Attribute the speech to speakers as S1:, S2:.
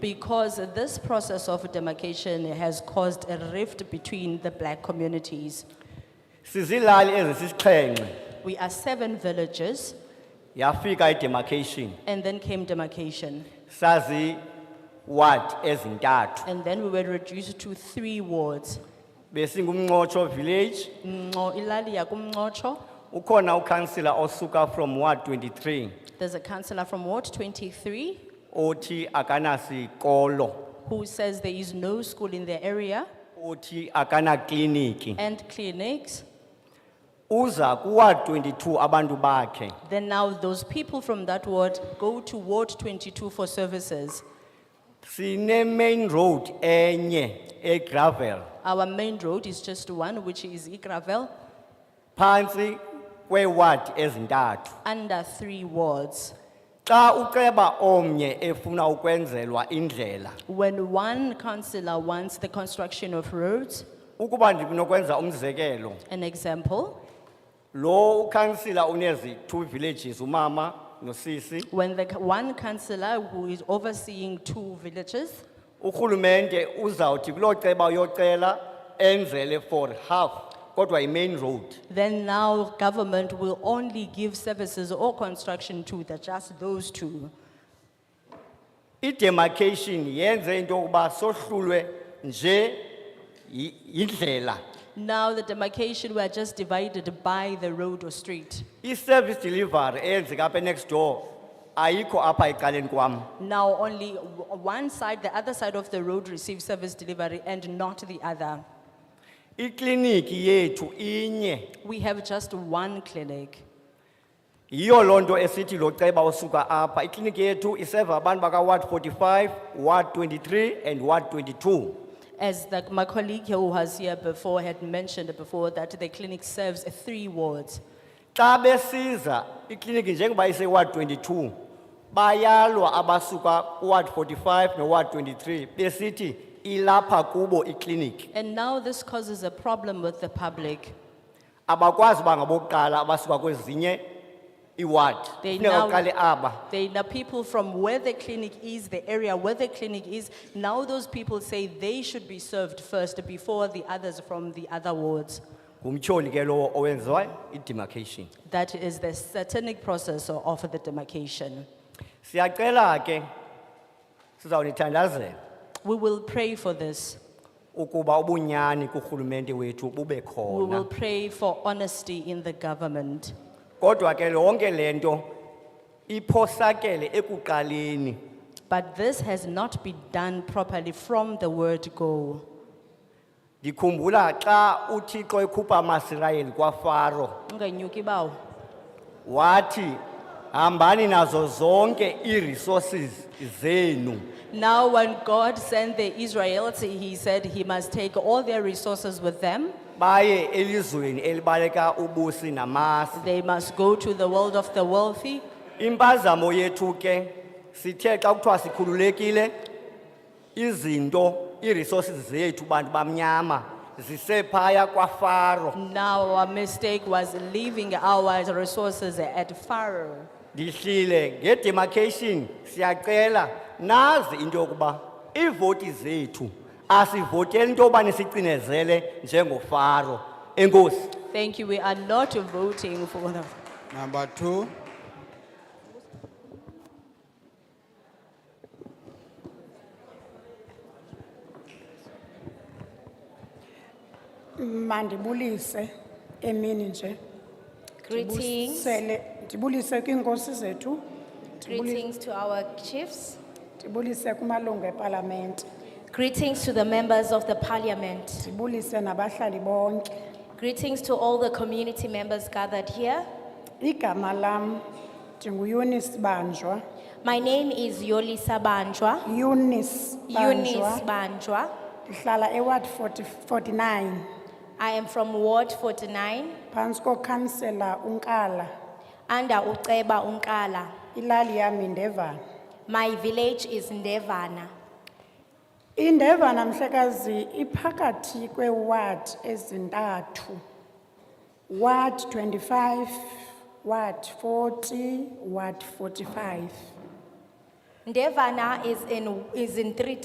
S1: Because this process of demarcation has caused a rift between the black communities.
S2: Sizilali ezisixhenxe
S1: We are seven villages
S2: yafika idemarcation
S1: and then came demarcation.
S2: sazi ward ezintathu
S1: And then we were reduced to three wards.
S2: besingumnqotsho village
S1: Ngo- Ilalia kumnqotsho.
S2: ukhona ukansila osuka from ward 23
S1: There's a councillor from Ward twenty-three
S2: othi akanasikolo
S1: who says there is no school in their area
S2: othi akanakliniki
S1: and clinics.
S2: uza kuward 22 abantu bakhe
S1: Then now those people from that ward go to Ward twenty-two for services.
S2: sine main road enye egravel
S1: Our main road is just one, which is Igravel,
S2: phantsi kweeward ezintathu
S1: under three wards.
S2: xa uceba omnye efuna ukwenzelwa indlela
S1: When one councillor wants the construction of roads,
S2: ukuba ndinokwenza umzekelo
S1: an example,
S2: lo ukansila unezi two villages umama nosisi
S1: when the c- one councillor who is overseeing two villages,
S2: urhulumente uzawuthi kuloo ceba uyocela enzele for half kodwa yi-main road
S1: then now government will only give services or construction to the, just those two.
S2: idemarcation yenze into yokuba sohlulwe nje yi- yindlela
S1: Now the demarcation, we are just divided by the road or street.
S2: i-service delivery eyenzeka apha next door ayikho apha ecaleni kwam
S1: Now only w- one side, the other side of the road receives service delivery and not the other.
S2: ikliniki yethu inye
S1: We have just one clinic.
S2: yiyo loo nto esithi lo ceba osuka apha ikliniki yethu iseva abantu bakaward 45 ward 23 and ward 22
S1: As the, my colleague here who was here before had mentioned before that the clinic serves three wards.
S2: xa besiza ikliniki njengoba iseward 22 bayalwa abasuka ward 45 noward 23 besithi ilapha kubo ikliniki
S1: And now this causes a problem with the public.
S2: abakwazi uba ngabokuqala abasuka kwezinye iward
S1: They
S2: funeka
S1: now-
S2: uqale aba
S1: They, the people from where the clinic is, the area where the clinic is, now those people say they should be served first before the others from the other wards.
S2: ngumtyholi ke lowo owenziwa idemarcation
S1: That is the satanic process of the demarcation.
S2: siyacela ke sizawunithandazela
S1: We will pray for this.
S2: ukuba ubunyani kurhulumente wethu bube
S1: We will
S2: khona
S1: pray for honesty in the government.
S2: kodwa ke lonke lento iphosakele ekuqaleni
S1: But this has not been done properly from the word go.
S2: ndikhumbula xa uthixo ekhupha amasirayeli kwafaro
S1: Ungenyuki bawo.
S2: wathi hambani nazo zonke ii-resources zenu
S1: Now, when God sent the Israelites, he said he must take all their resources with them.
S2: baye elizweni elibaleka ubusi namasi
S1: They must go to the world of the wealthy.
S2: impazamo yethu ke sithe xa kuthiwa sikhululekile izinto ii-resources zethu bantu bamnyama zisephaya kwafaro
S1: Now, our mistake was leaving our resources at Pharaoh.
S2: ndihlile ngedemarcation siyacela nazi into yokuba iivoti zethu asivoteli into yobani sicinezele njengofaro enkosi
S1: Thank you. We are not voting for the.
S3: Number two,
S4: mandibulise emini nje
S5: Greetings,
S4: Ndibulisele- ndibulise kwiinkosi zethu ndibuli-
S5: greetings to our chiefs,
S4: ndibulise kumalungu epalamente
S5: greetings to the members of the parliament,
S4: ndibulise nabahlali bonke
S5: greetings to all the community members gathered here.
S4: igama lam ndinguyunis banjwa
S5: My name is Yolisa Banjwa,
S4: yunis
S5: Eunice
S4: banjwa
S5: Banjwa.
S4: ndihlala eward 40 49
S5: I am from Ward forty-nine,
S4: phantsi kokhansela unkala
S5: under Uceba Unkala.
S4: ilali yam indevana
S5: My village is Ndevana.
S4: indevana mhlekazi iphakathi kweewadi ezintathu ward 25 ward 40 ward 45
S5: Devana is in, is in three